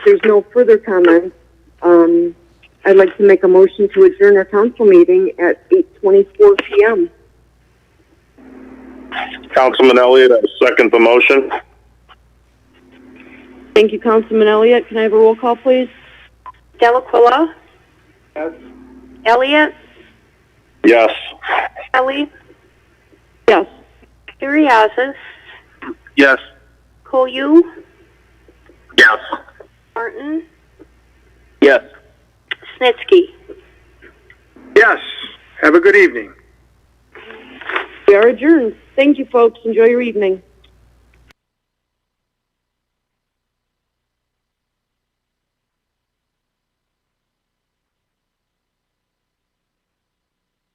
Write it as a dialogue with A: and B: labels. A: there's no further comments, um, I'd like to make a motion to adjourn our council meeting at 8:24 PM.
B: Councilman Elliott, I second the motion.
A: Thank you, Councilman Elliott. Can I have a roll call, please?
C: Delacqua? Elliot,
B: Yes.
C: Kelly,
A: Yes.
C: Curriasis,
B: Yes.
C: Koyu,
B: Yes.
C: Martin,
B: Yes.
C: Snitsky.
B: Yes. Have a good evening.
A: We are adjourned. Thank you, folks. Enjoy your evening.